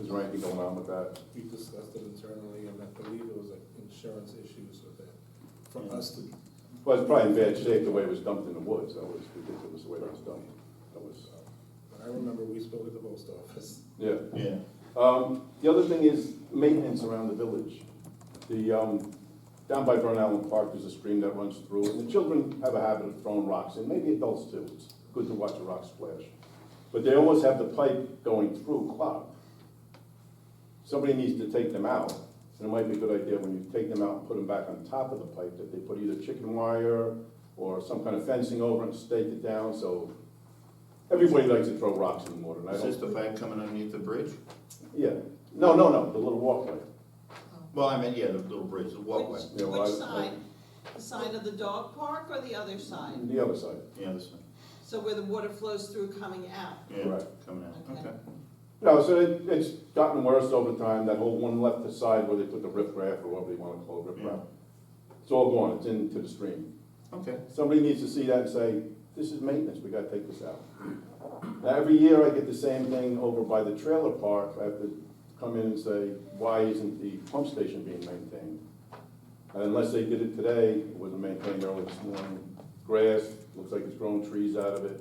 Is there anything going on with that? We discussed it internally, and I believe it was like insurance issues with it, for us to, Well, it's probably in bad shape, the way it was dumped in the woods, that was ridiculous, the way it was dumped. That was, uh, but I remember we spoke at the post office. yeah. Yeah. Um, the other thing is maintenance around the village. The, um, down by Burn Allen Park, there's a stream that runs through, and the children have a habit of throwing rocks, and maybe adults too. It's good to watch a rock splash. But they always have the pipe going through clogged. Somebody needs to take them out, and it might be a good idea when you take them out and put them back on top of the pipe, that they put either chicken wire or some kind of fencing over and stake it down, so everybody likes to throw rocks in the water, and I Is don't this the pipe coming underneath the bridge? yeah, no, no, no, the little walkway. Well, I mean, yeah, the little bridge, the walkway, Which, Yeah, well, which I- side? The side of the dog park or the other side? The other side, yeah, this one, So where the water flows through coming out? yeah, Correct. coming out, Okay. okay. no, so it, it's gotten worse over time, that whole one left side where they put the riprap or whatever you wanna call it, riprap. It's all gone, it's into the stream. Okay, Somebody needs to see that and say, this is maintenance, we gotta take this out. Now, every year I get the same thing over by the trailer park, I have to come in and say, why isn't the pump station being maintained? And Unless they did it today, it wasn't maintained early this morning, grass, looks like it's grown trees out of it.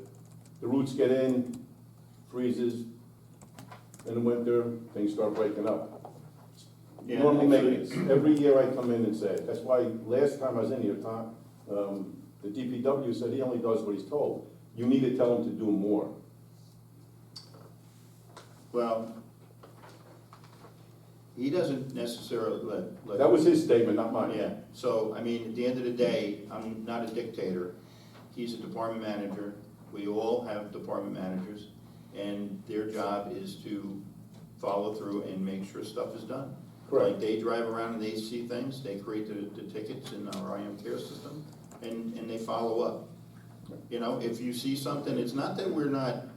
The roots get in, freezes, in the winter, things start breaking up. Yeah, Normally actually- maintenance, every year I come in and say it, that's why last time I was in here, Tom, um, the DPW said he only does what he's told. You need to tell him to do more. well, he doesn't necessarily let, let. That was his statement, not mine. Yeah, so, I mean, at the end of the day, I'm not a dictator. He's a department manager. We all have department managers, and their job is to follow through and make sure stuff is done. Correct. Like, they drive around and they see things, they create the, the tickets in our IM care system, and, and they follow up. You know, if you see something, it's not that we're not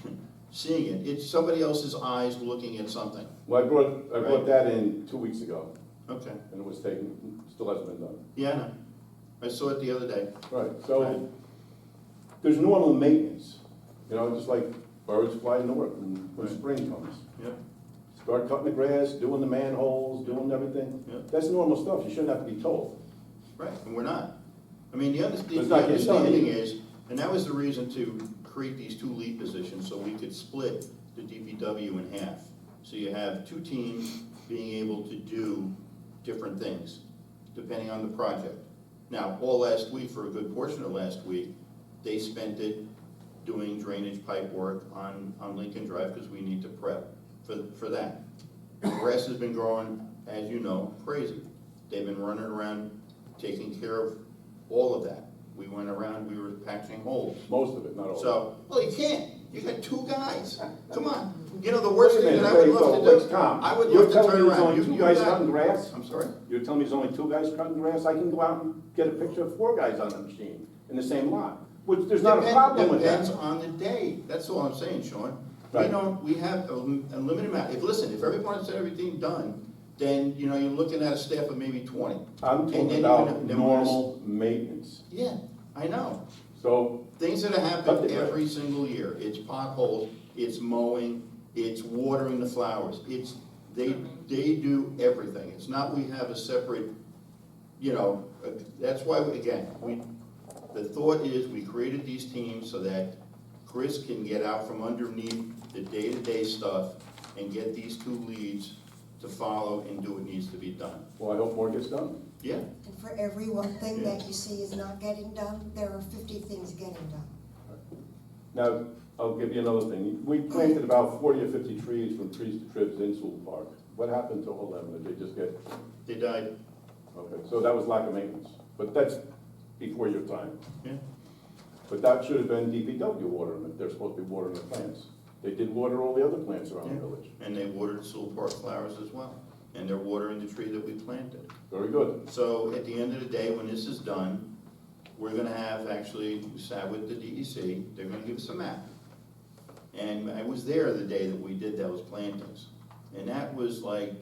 seeing it, it's somebody else's eyes looking at something. Well, I brought, I Right. brought that in two weeks ago, Okay, and it was taken, still hasn't been done. yeah, I know. I saw it the other day. Right, so, Right. there's normal maintenance, you know, just like birds fly north and when Right. spring comes. Yep. Start cutting the grass, doing the manholes, doing everything. Yeah. That's normal stuff, you shouldn't have to be told. Right, and we're not. I mean, the under- Let's the not get stung. understanding is, and that was the reason to create these two lead positions, so we could split the DPW in half. So you have two teams being able to do different things, depending on the project. Now, all last week, for a good portion of last week, they spent it doing drainage pipe work on, on Lincoln Drive, because we need to prep for, for that. Grass has been growing, as you know, crazy. They've been running around taking care of all of that. We went around, we were patching holes. Most of it, not all of it. So, well, you can't, you got two guys, come on. You know, the Wait worst a thing minute, that I would wait, love so to what's do, Tom? I would You're love to telling turn me there's around. only You- two you guys got- cutting grass? I'm sorry? You're telling me there's only two guys cutting grass? I can go out and get a picture of four guys on the machine in the same lot, which, there's not a Depend- problem with that. Depends on the day, that's all I'm saying, Sean. We Right. don't, we have a lim- a limited amount, if, listen, if everyone said everything done, then, you know, you're looking at a staff of maybe twenty. I'm And then talking you about know- then we're just- normal maintenance. Yeah, I know. So, Things that Cut the happen grass. every single year, it's potholes, it's mowing, it's watering the flowers, it's, they, they do everything, it's not we have a separate, you know, uh, that's why, again, we, the thought is, we created these teams so that Chris can get out from underneath the day-to-day stuff and get these two leads to follow and do what needs to be done, well, I hope more gets done. yeah? And for every one thing that you see is not getting done, there are fifty things getting done. Now, I'll give you another thing. We planted about forty or fifty trees from Trees to Tribs in Sewell Park. What happened to all of them? Did they just get, They died, okay, so that was lack of maintenance. But that's before your time. yeah, But that should have been DPW watering it. They're supposed to be watering the plants. They did water all the other plants around the Yeah. village. and they watered Sewell Park flowers as well, and they're watering the tree that we planted. Very good. So at the end of the day, when this is done, we're gonna have, actually, we sat with the DEC, they're gonna give us a map. And I was there the day that we did those plantings, and that was like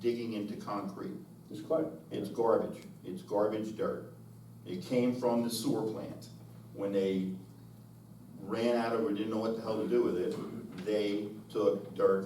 digging into concrete. It's clay. It's garbage, it's garbage dirt. It came from the sewer plant. When they ran out of, or didn't know what the hell to do with it, they took dirt